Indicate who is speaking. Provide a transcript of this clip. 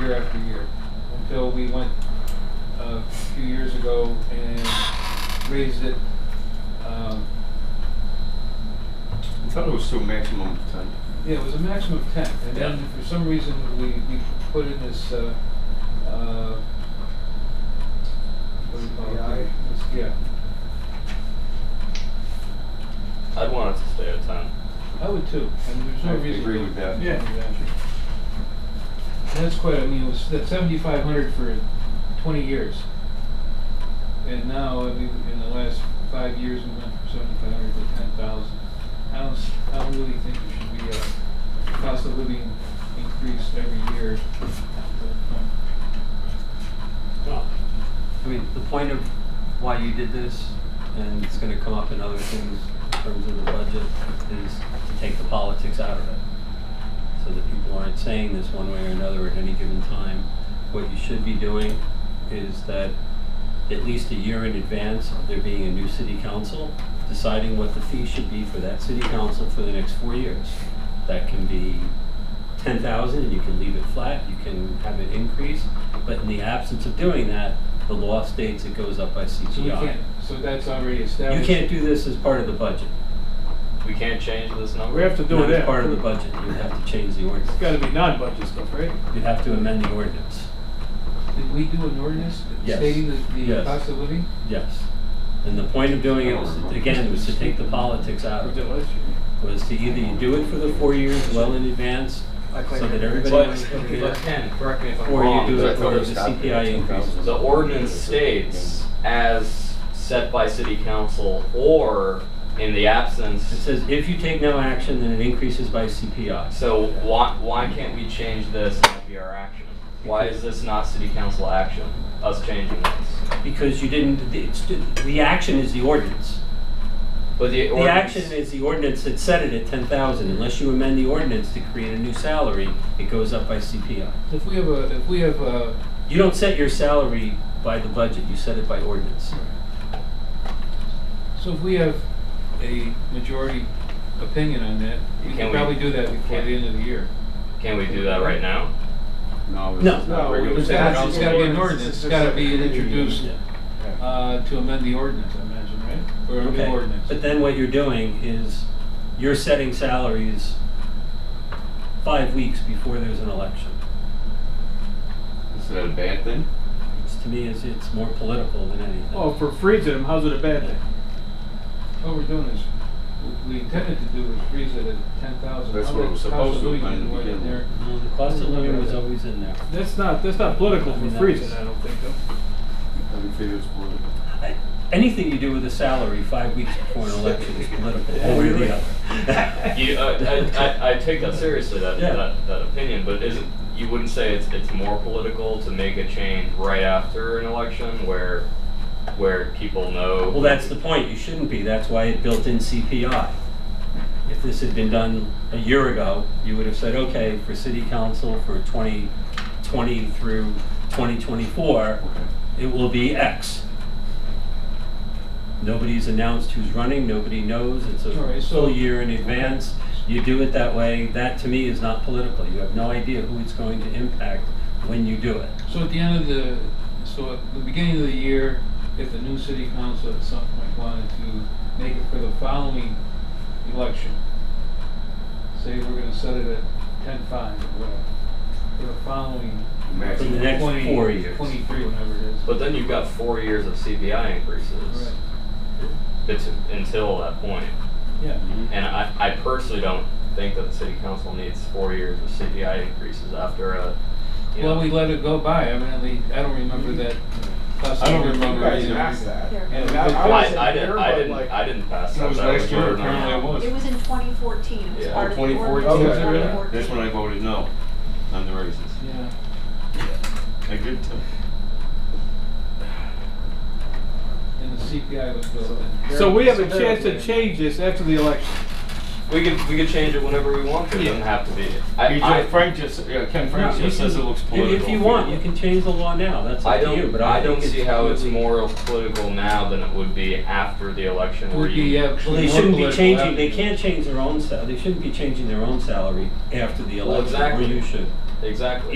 Speaker 1: year after year until we went uh, a few years ago and raised it. Um,
Speaker 2: I thought it was still maximum of ten.
Speaker 1: yeah, it was a maximum of 10. And then for some reason we, we put in this. Uh, uh, what do you call it?
Speaker 3: CPI?
Speaker 1: This- Yeah.
Speaker 4: I'd want it to stay at ten.
Speaker 1: I would too. And there's
Speaker 2: I
Speaker 1: no reason.
Speaker 2: agree
Speaker 1: to-
Speaker 2: with that.
Speaker 3: Yeah.
Speaker 1: And That's quite, I mean, it was, that's seventy-five hundred for twenty years. And now, I mean, in the last five years, we went from seventy-five hundred to ten thousand. I don't, s- I don't really think there should be a cost of living increase every year.
Speaker 5: I mean, the point of why you did this, and it's gonna come up in other things in terms of the budget, is to take the politics out of it. So that people aren't saying this one way or another at any given time. What you should be doing is that at least a year in advance of there being a new city council, deciding what the fee should be for that city council for the next four years. That can be ten thousand, and you can leave it flat, you can have it increase, but in the absence of doing that, the law states it goes up by CPI.
Speaker 1: So we can't, so that's already
Speaker 5: You
Speaker 1: established.
Speaker 5: can't do this as part of the budget.
Speaker 4: We can't change this number.
Speaker 3: We have to do
Speaker 5: Not
Speaker 3: it.
Speaker 5: as part of the budget, you would have to change the
Speaker 3: It's
Speaker 5: ordinance.
Speaker 3: gotta be non-budget stuff, right?
Speaker 5: You'd have to amend the ordinance,
Speaker 1: Did we do an ordinance
Speaker 5: Yes.
Speaker 1: stating the, the
Speaker 5: Yes.
Speaker 1: cost of living?
Speaker 5: yes. And the point of doing it was, again, was to take the politics out
Speaker 3: We
Speaker 5: of
Speaker 3: did
Speaker 5: it,
Speaker 3: last year.
Speaker 5: was to either you do it for the four years well in advance, so that everybody knows what it
Speaker 4: But
Speaker 5: is,
Speaker 4: Ken, correct me if I'm
Speaker 5: or you
Speaker 4: wrong.
Speaker 5: do
Speaker 2: but
Speaker 5: it
Speaker 2: I
Speaker 4: but
Speaker 2: thought it
Speaker 5: for
Speaker 2: was
Speaker 5: the
Speaker 2: calculated
Speaker 5: CPI
Speaker 2: 10,000.
Speaker 5: increase.
Speaker 4: The ordinance states as set by city council or in the
Speaker 5: It
Speaker 4: absence.
Speaker 5: says if you take no action, then it increases by CPI.
Speaker 4: So why, why can't we change this and that be our action? Why is this not city council action, us changing this?
Speaker 5: Because you didn't, it's, the action is the ordinance.
Speaker 4: But the
Speaker 5: The
Speaker 4: ordinance-
Speaker 5: action is the ordinance that set it at ten thousand, unless you amend the ordinance to create a new salary, it goes up by CPI.
Speaker 1: If we have a, if we have a,
Speaker 5: You don't set your salary by the budget, you set it by ordinance.
Speaker 1: So if we have a majority opinion on that, we
Speaker 4: Can
Speaker 1: can
Speaker 4: we-
Speaker 1: probably do that before the end of the year.
Speaker 4: Can we do that right now?
Speaker 2: No.
Speaker 5: No.
Speaker 2: it's
Speaker 3: No,
Speaker 2: not regular
Speaker 1: It's
Speaker 3: it's
Speaker 2: city
Speaker 1: gotta, it's
Speaker 2: council.
Speaker 1: gotta be an
Speaker 3: ordinance.
Speaker 1: ordinance, it's
Speaker 3: It's
Speaker 1: gotta
Speaker 3: just
Speaker 1: be
Speaker 3: a committee.
Speaker 1: introduced,
Speaker 5: Yeah.
Speaker 1: uh, to amend the ordinance, I imagine, right? Or a new
Speaker 5: Okay.
Speaker 1: ordinance.
Speaker 5: But then what you're doing is, you're setting salaries five weeks before there's an election.
Speaker 2: Is that a bad thing?
Speaker 5: It's, to me, it's, it's more political than anything.
Speaker 3: Oh, for freezing, how's it a bad thing?
Speaker 1: What we're doing is, what we intended to do was freeze it at ten thousand.
Speaker 2: That's what it was supposed to have been in the beginning.
Speaker 5: No, the cost of living was always in there.
Speaker 3: That's not, that's not political
Speaker 5: I
Speaker 3: for
Speaker 5: mean, that
Speaker 3: freezing,
Speaker 5: was-
Speaker 3: I don't think, though.
Speaker 2: I don't think it's political.
Speaker 5: I- Anything you do with a salary five weeks before an election is political,
Speaker 3: Yeah,
Speaker 5: one way or
Speaker 3: really?
Speaker 5: the other.
Speaker 4: You, uh, I, I, I take that seriously, that,
Speaker 5: Yeah.
Speaker 4: that, that opinion, but isn't, you wouldn't say it's, it's more political to make a change right after an election where, where people know?
Speaker 5: Well, that's the point, you shouldn't be, that's why it built in CPI. If this had been done a year ago, you would have said, okay, for city council for 2020 through 2024, it will be X. Nobody's announced who's running, nobody knows, it's
Speaker 1: All
Speaker 5: a
Speaker 1: right, so-
Speaker 5: full year in advance. You do it that way, that to me is not political, you have no idea who it's going to impact when you do it.
Speaker 1: So at the end of the, so at the beginning of the year, if the new city council at some point wanted to make it for the following election, say we're gonna set it at ten-five or whatever, for the following.
Speaker 5: For the
Speaker 2: Maximum.
Speaker 5: next
Speaker 1: 20
Speaker 5: four years.
Speaker 1: Twenty-three, whenever it is.
Speaker 4: But then you've got four years of CPI increases
Speaker 1: Right.
Speaker 4: bet- until that point.
Speaker 1: Yeah.
Speaker 4: And I, I personally don't think that the city council needs four years of CPI increases after a, you know.
Speaker 1: Well, we let it go by, evidently, I don't remember that.
Speaker 2: I don't remember
Speaker 1: Right.
Speaker 2: either.
Speaker 1: Yeah.
Speaker 6: It
Speaker 1: I-
Speaker 4: Well, I,
Speaker 6: wasn't
Speaker 4: I didn't,
Speaker 6: here,
Speaker 4: I
Speaker 6: but,
Speaker 4: didn't,
Speaker 6: like-
Speaker 4: I didn't pass that.
Speaker 2: That was
Speaker 4: that
Speaker 2: last year,
Speaker 4: voted on.
Speaker 2: apparently it was.
Speaker 6: was in 2014, it was
Speaker 4: Yeah.
Speaker 6: part of the.
Speaker 2: Oh, Twenty fourteen,
Speaker 6: ordinance.
Speaker 2: is it
Speaker 6: Twenty
Speaker 2: really?
Speaker 6: fourteen.
Speaker 2: That's when I voted no on the raises.
Speaker 1: Yeah.
Speaker 2: I did too.
Speaker 1: And the CPI was built in.
Speaker 3: So we have a
Speaker 4: So-
Speaker 3: chance to change this after the election.
Speaker 4: We could, we could change it whenever we want to, it doesn't have to be. I-
Speaker 2: He
Speaker 4: I-
Speaker 2: just, Frank just, yeah, Ken Frank
Speaker 5: No, you
Speaker 2: just says it
Speaker 5: can-
Speaker 2: looks
Speaker 5: if-
Speaker 2: political.
Speaker 5: If you want, you can change the law now, that's
Speaker 4: I
Speaker 5: up to you,
Speaker 4: don't,
Speaker 5: but
Speaker 4: I
Speaker 5: I
Speaker 4: don't
Speaker 5: think
Speaker 4: see how it's
Speaker 5: completely-
Speaker 4: more political now than it would be after the election where
Speaker 1: Would be
Speaker 4: you.
Speaker 5: Well,
Speaker 1: actually
Speaker 5: they
Speaker 1: more
Speaker 5: shouldn't be
Speaker 1: political
Speaker 5: changing, they
Speaker 1: after.
Speaker 5: can't change their own sal, they shouldn't be changing their own salary after the
Speaker 4: Well,
Speaker 5: election, or
Speaker 4: exactly.
Speaker 5: you should.
Speaker 4: Exactly.